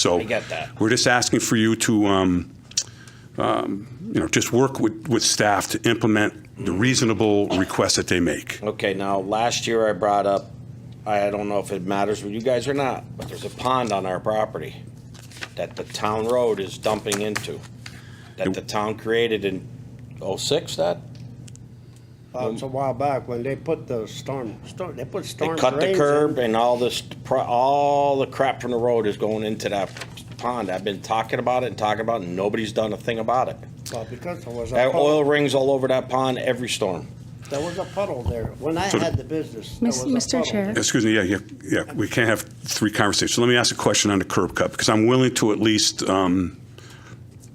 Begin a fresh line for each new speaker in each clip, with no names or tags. So
I get that.
We're just asking for you to, um, um, you know, just work with, with staff to implement the reasonable requests that they make.
Okay, now, last year I brought up, I don't know if it matters with you guys or not, but there's a pond on our property that the town road is dumping into, that the town created in oh-six, that?
Uh, It's a while back when they put the storm, storm, they put
Um, They
storm drains in.
cut the curb and all this, pro- all the crap from the road is going into that pond. I've been talking about it and talking about it, and nobody's done a thing about it.
Well, uh, because there was a
That oil
puddle,
rings all over that pond every storm.
there was a puddle there. When I
So-
had the business, there was
Miss-
a
Mr.
puddle.
Chair,
Excuse me, yeah, yeah, yeah, we can't have three conversations. So Let me ask a question on the curb cut, because I'm willing to at least um,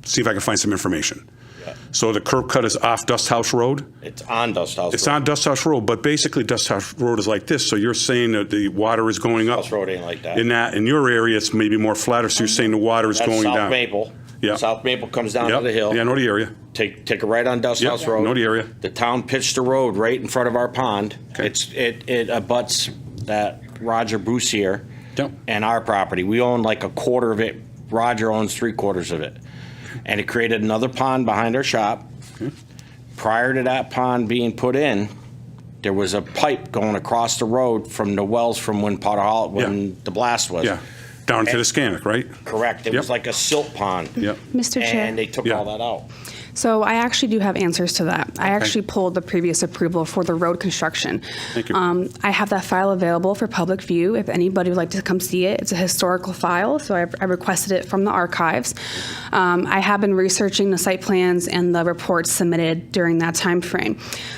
see if I can find some information. So the curb cut is off Dust House Road?
It's on Dust House.
It's
Road.
on Dust House Road, but basically Dust House Road is like this, so you're saying that the water is going up?
House Road ain't like that.
In that, in your area, it's maybe more flatter, so you're saying the water is
That's
going
South
down?
Maple.
Yeah.
South Maple comes down
Yep.
to the hill.
Yeah, I know the area.
Take take a right on Dust
Yep,
House Road.
know the area.
The town pitched a road right in front of our pond. It's it it abuts that Roger Boussier
Yep.
and our property. We own like a quarter of it. Roger owns three quarters of it, and it created another pond behind our shop. Prior to that pond being put in, there was a pipe going across the road from the wells from when Potter Hall when
Yeah.
the blast was.
Yeah, down to the Scannick, right?
Correct. It was
Yep.
like a silt pond.
Yep.
Mr.
And they
Chair,
took
Yeah.
all that out.
so I actually do have answers to that. I actually pulled the previous approval for the road construction.
Thank you.
Um, I have that file available for public view if anybody would like to come see it. It's a historical file, so I I requested it from the archives. Um, I have been researching the site plans and the reports submitted during that timeframe.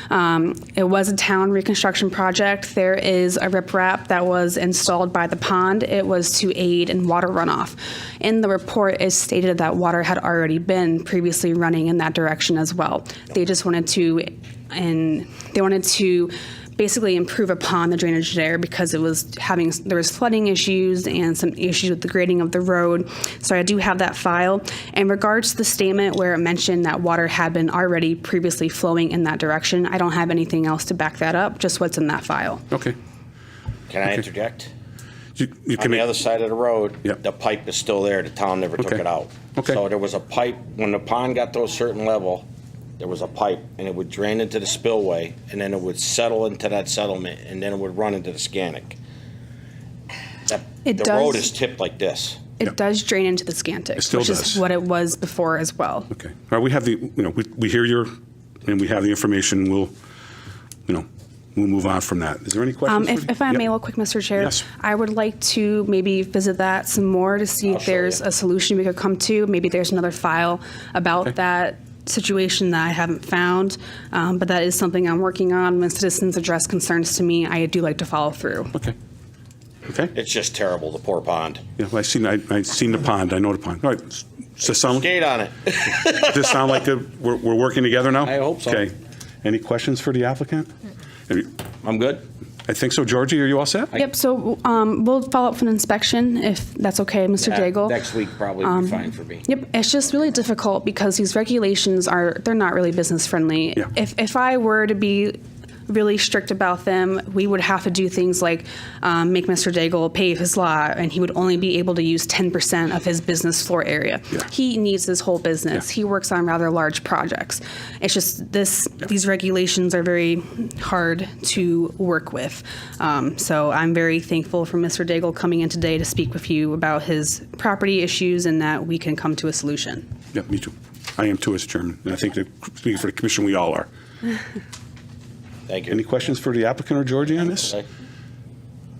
Um, It was a town reconstruction project. There is a riprap that was installed by the pond. It was to aid in water runoff. In the report, it stated that water had already been previously running in that direction as well. They just wanted to, and they wanted to basically improve upon the drainage there because it was having there was flooding issues and some issues with the grading of the road. So I do have that file. In regards to the statement where it mentioned that water had been already previously flowing in that direction, I don't have anything else to back that up. Just what's in that file.
Okay.
Can I interject?
You you
On
can
the
make-
other side of the road,
Yep.
the pipe is still there. The town never took
Okay.
it out.
Okay.
So there was a pipe, when the pond got to a certain level, there was a pipe and it would drain into the spillway and then it would settle into that settlement and then it would run into the Scannick. That-
It
The road
does-
is tipped like this.
It
Yep.
does drain into the Scantic,
It still
which
does.
is what it was before as well.
Okay. All right, we have the, you know, we, we hear your, and we have the information, we'll, you know, we'll move on from that. Is there any questions?
Um,
for-
if, if I may,
Yep.
real quick, Mr. Chair,
Yes.
I would like to maybe visit that some more to see
Oh,
I'll
if
show
there's
you.
a solution we could come to. Maybe there's another file about that situation that I haven't found, um, but that is something I'm working on. When citizens address concerns to me, I do like to follow through.
Okay. Okay.
It's just terrible, the poor pond.
Yeah, well, I seen, I, I seen the pond, I know the pond. All right. Does this sound,
Gate on it.
does this sound like a- we're, we're working together now?
I hope so.
Okay. Any questions for the applicant? Have you-
I'm good?
I think so. Georgie, are you all set?
Yep, so um, we'll follow up for an inspection if that's okay, Mr.
Yeah,
Daigle.
Uh, Next week probably would be fine for me.
Um, Yep, it's just really difficult because these regulations are they're not really business friendly.
Yeah.
If if I were to be really strict about them, we would have to do things like um, make Mr. Daigle pave his lot, and he would only be able to use ten percent of his business floor area.
Yeah.
He needs his whole business.
Yeah.
He works on rather large projects. It's just this these regulations are very hard to work with. Um, so I'm very thankful for Mr. Daigle coming in today to speak with you about his property issues and that we can come to a solution.
Yeah, me too. I am too, as chairman, and I think that, speaking for the commission, we all are.
Thank
Any
you.
questions for the applicant or Georgie on this?
Okay,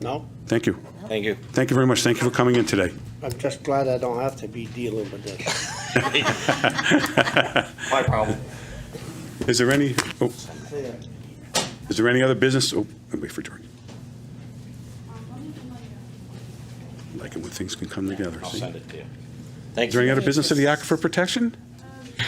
No,
Thank you.
Thank you.
Thank you very much. Thank you for coming in today.
I'm just glad I don't have to be dealing with this.
My problem.
Is there any, oh, is there any other business? Oh, I'll wait for Georgie. Like it when things can come together.
I'll
see?
send it to you. Thank
Is there any
you.
other business of the aquifer protection?
No.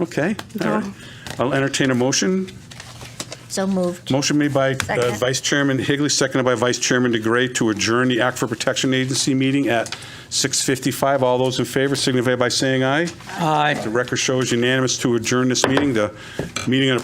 Okay, all right. I'll entertain a motion
So moved.
Motion made by uh,
Second.
Vice Chairman Higley, seconded by Vice Chairman DeGray to adjourn the Aquifer Protection Agency meeting at 6:55. All those in favor signify by saying aye. Aye. The record shows unanimous to adjourn this meeting. The meeting on